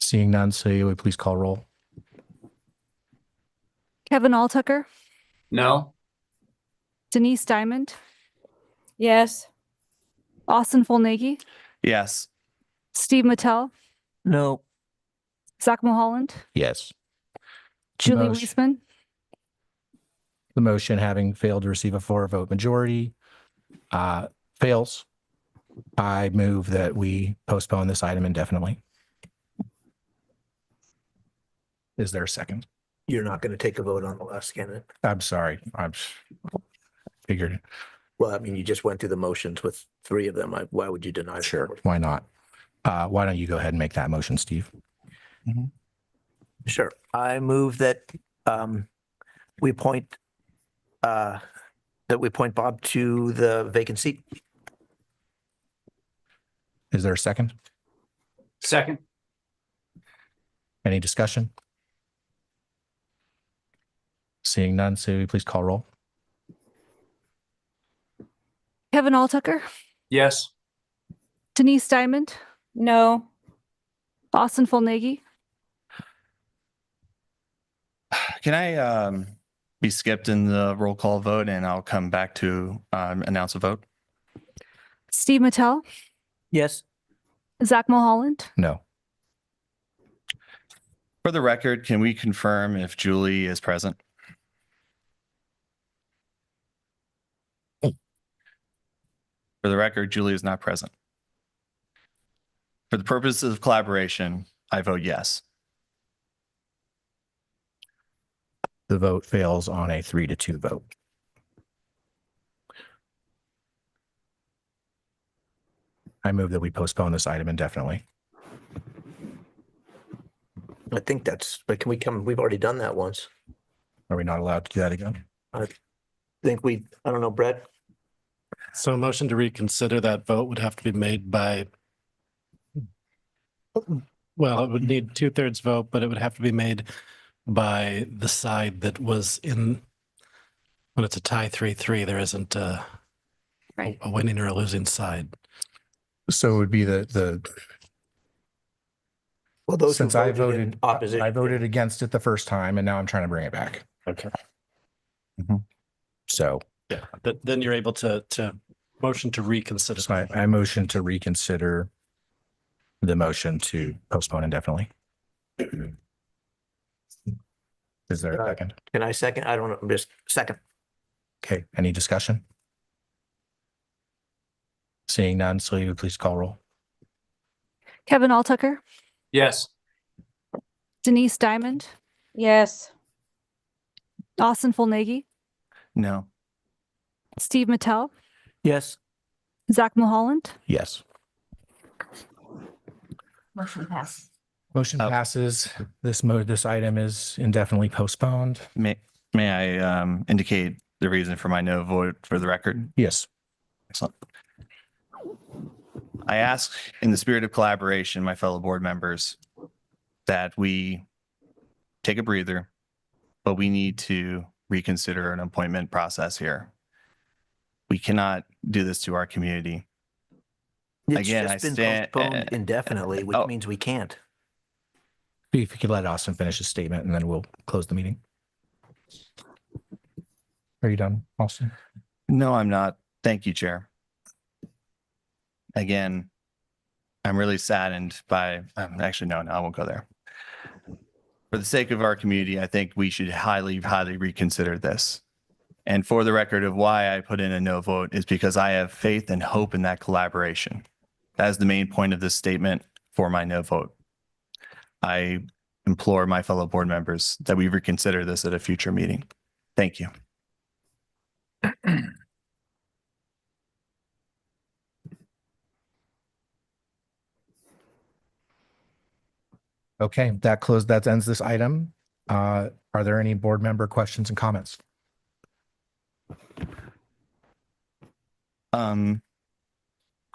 Seeing none, so you would please call roll. Kevin Alltucker, No. Denise Diamond, Yes. Austin Fullnagy, Yes. Steve Mattel, No. Zach Mulholland, Yes. Julie Motion- Weisman, The motion having failed to receive a four vote majority uh, fails. I move that we postpone this item indefinitely. Is there a second? You're not going to take a vote on the last candidate. I'm sorry, I'm figured, it. Well, I mean, you just went through the motions with three of them. I- Why would you deny? the sure, fourth? why not? Uh, Why don't you go ahead and make that motion, Steve? Sure. I move that um, we appoint uh, that we appoint Bob to the vacant seat. Is there a second? Second. Any discussion? Seeing none, so you please call roll. Kevin Alltucker, Yes. Denise Diamond, No. Austin Fullnagy, Can I um be skipped in the roll call vote and I'll come back to um announce a vote? Steve Mattel, Yes. Zach Mulholland, No. For the record, can we confirm if Julie is present? For the record, Julie is not present. For the purposes of collaboration, I vote yes. The vote fails on a three to two vote. I move that we postpone this item indefinitely. I think that's, but can we come, we've already done that once. Are we not allowed to do that again? I think we, I don't know, Brett, So a motion to reconsider that vote would have to be made by, well, it would need two-thirds vote, but it would have to be made by the side that was in, when it's a tie three-three, there isn't a Right. a winning or a losing side. So it would be the, the, well, those who since I voted in voted, opposition. I voted against it the first time and now I'm trying to bring it back. Mm-hmm. Okay. So Yeah, Th- then you're able to, to motion to reconsider. so I, I motion to reconsider the motion to postpone indefinitely. Is there a Uh, second? Can I second? I don't know, I'm just second. Okay, any discussion? Seeing none, so you would please call roll. Kevin Alltucker, Yes. Denise Diamond, Yes. Austin Fullnagy, No. Steve Mattel, Yes. Zach Mulholland, Yes. Motion passes. Motion Uh, passes. This mode, this item is indefinitely postponed. May may I um indicate the reason for my no vote for the record? Yes. Excellent. I ask in the spirit of collaboration, my fellow board members, that we take a breather, but we need to reconsider an appointment process here. We cannot do this to our community. It's Again, I just been stand- postponed indefinitely, which Oh. means we can't. If you could let Austin finish his statement and then we'll close the meeting. Are you done, Austin? No, I'm not. Thank you, Chair. Again, I'm really saddened by, um, actually, no, no, I won't go there. For the sake of our community, I think we should highly, highly reconsider this. And for the record of why I put in a no vote is because I have faith and hope in that collaboration. That is the main point of this statement for my no vote. I implore my fellow board members that we reconsider this at a future meeting. Thank you. Okay, that closed, that ends this item. Uh, are there any board member questions and comments? Um,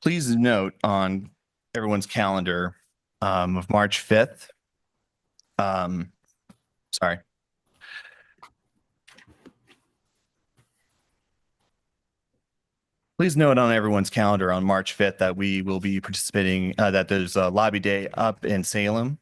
please note on everyone's calendar, um, of March fifth. Um, sorry. Please note on everyone's calendar on March fifth that we will be participating, uh, that there's a lobby day up in Salem